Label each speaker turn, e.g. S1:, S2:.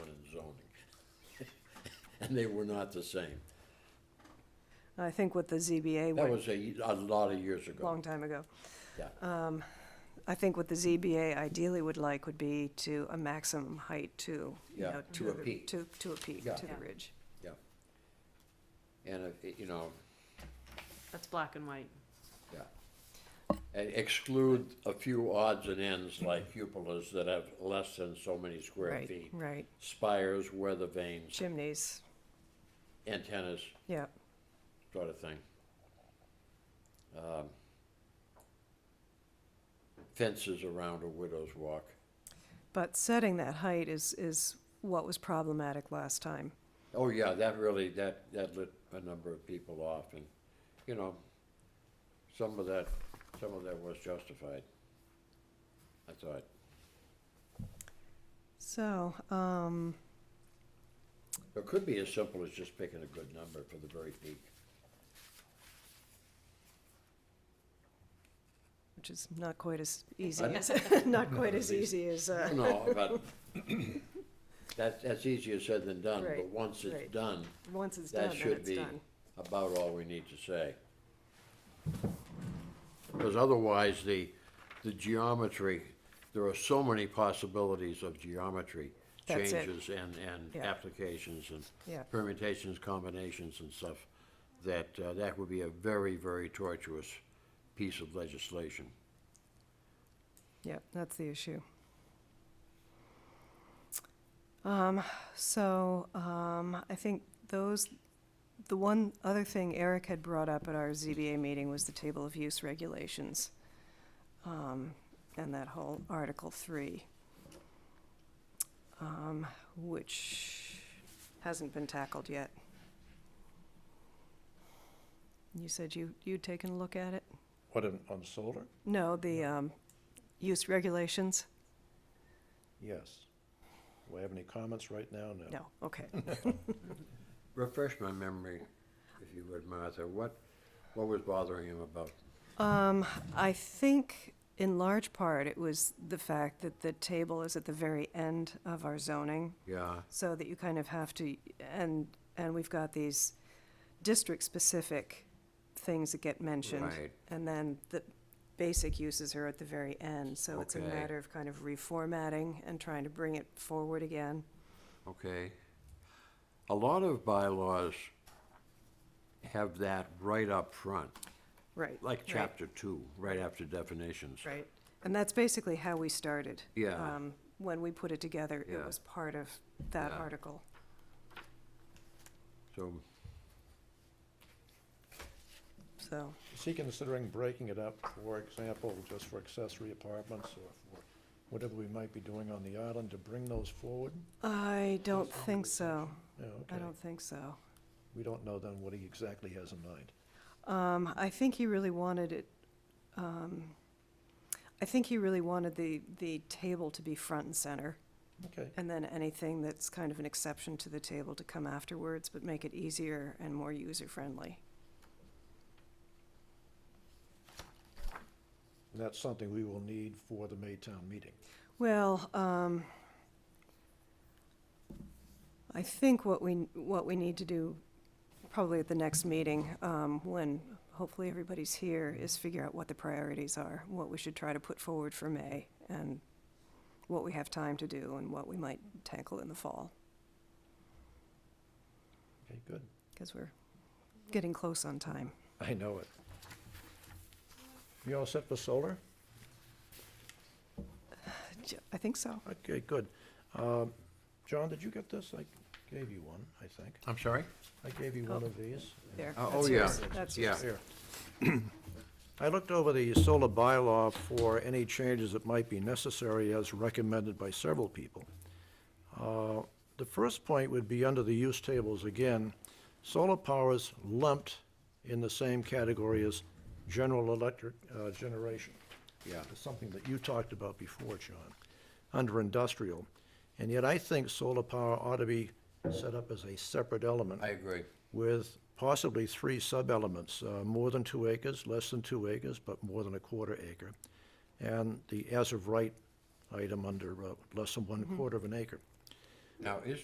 S1: and they were not the same.
S2: I think what the ZBA
S1: That
S2: went
S1: was a, a lot of years
S2: a long
S1: ago.
S2: time ago. Um,
S1: Yeah.
S2: I think what the ZBA ideally would like would be to a maximum height to, you
S1: Yeah,
S2: know,
S1: to a
S2: the-
S1: peak.
S2: To, to a peak,
S1: Yeah.
S2: to the
S3: Yeah.
S2: ridge.
S1: Yeah. And, uh, you know,
S3: That's black and white.
S1: yeah. And exclude a few odds and ends like cupolas that have less than so many square
S2: Mm-hmm. Right,
S1: feet.
S2: right.
S1: Spires, weather vanes,
S2: Chimneys,
S1: antennas,
S2: yeah.
S1: sort of thing. Um, Fences around a widow's walk.
S2: But setting that height is, is what was problematic last time.
S1: Oh, yeah, that really, that, that lit a number of people off, and, you know, some of that, some of that was justified, I thought.
S2: So, um,
S1: It could be as simple as just picking a good number for the very peak.
S2: which is not quite as easy
S1: Pardon?
S2: as, not quite as easy as, uh,
S1: No, but that, that's easier said than done, but
S2: Right,
S1: once it's
S2: right.
S1: done,
S2: once it's done,
S1: that
S2: then
S1: should
S2: it's
S1: be
S2: done.
S1: about all we need to say. Because otherwise, the, the geometry, there are so many possibilities of geometry
S2: That's it.
S1: changes and, and
S2: Yeah.
S1: applications
S2: Yeah.
S1: and permutations, combinations and stuff, that, uh, that would be a very, very tortuous piece of legislation.
S2: Yep, that's the issue. Um, so, um, I think those, the one other thing Eric had brought up at our ZBA meeting was the table of use regulations. Um, and that whole Article three. Um, which hasn't been tackled yet. You said you, you'd taken a look at it?
S4: What, on, on solar?
S2: No, the, um, use regulations?
S4: Yes. Do I have any comments right now? No.
S2: No, okay.
S1: Refresh my memory, if you would, Martha, what, what was bothering him about?
S2: Um, I think in large part it was the fact that the table is at the very end of our zoning,
S1: Yeah,
S2: so that you kind of have to, and, and we've got these district-specific things that get mentioned.
S1: Right.
S2: And then the basic uses are at the very end, so it's a
S1: Okay.
S2: matter of kind of reformatting and trying to bring it forward again.
S1: okay. A lot of bylaws have that right up front,
S2: Right.
S1: like
S2: right,
S1: chapter two, right after definitions.
S2: Right, and that's basically how we started.
S1: Yeah.
S2: Um, When we put it together, it
S1: Yeah.
S2: was part of that
S1: Yeah.
S2: article.
S1: So,
S2: So,
S4: Is he considering breaking it up, for example, just for accessory apartments or for whatever we might be doing on the island to bring those forward?
S2: I don't think so.
S4: Yeah,
S2: I
S4: okay.
S2: don't think so.
S4: We don't know then what he exactly has in mind.
S2: Um, I think he really wanted it, um, I think he really wanted the, the table to be front and center,
S4: Okay,
S2: and then anything that's kind of an exception to the table to come afterwards, but make it easier and more user-friendly.
S4: and that's something we will need for the Maytown meeting.
S2: Well, um, I think what we, what we need to do, probably at the next meeting, um, when hopefully everybody's here, is figure out what the priorities are, what we should try to put forward for May, and what we have time to do, and what we might tackle in the fall,
S4: Okay, good.
S2: because we're getting close on time.
S4: I know it. You all set for solar?
S2: I think so.
S4: Okay, good. Um, John, did you get this? I gave you one, I think.
S1: I'm sorry?
S4: I gave you one of these.
S2: There,
S1: Oh,
S2: that's
S1: oh, yeah.
S2: yours. That's
S1: Yeah.
S2: yours.
S4: Here. I looked over the solar bylaw for any changes that might be necessary as recommended by several people. Uh, The first point would be under the use tables again. Solar power is lumped in the same category as general electric uh, generation.
S1: Yeah.
S4: It's something that you talked about before, John, under industrial. And yet I think solar power ought to be set up as a separate element
S1: I agree.
S4: with possibly three sub-elements, uh, more than two acres, less than two acres, but more than a quarter acre, and the as-of-right item under uh, less than one quarter of an acre.
S1: Now, is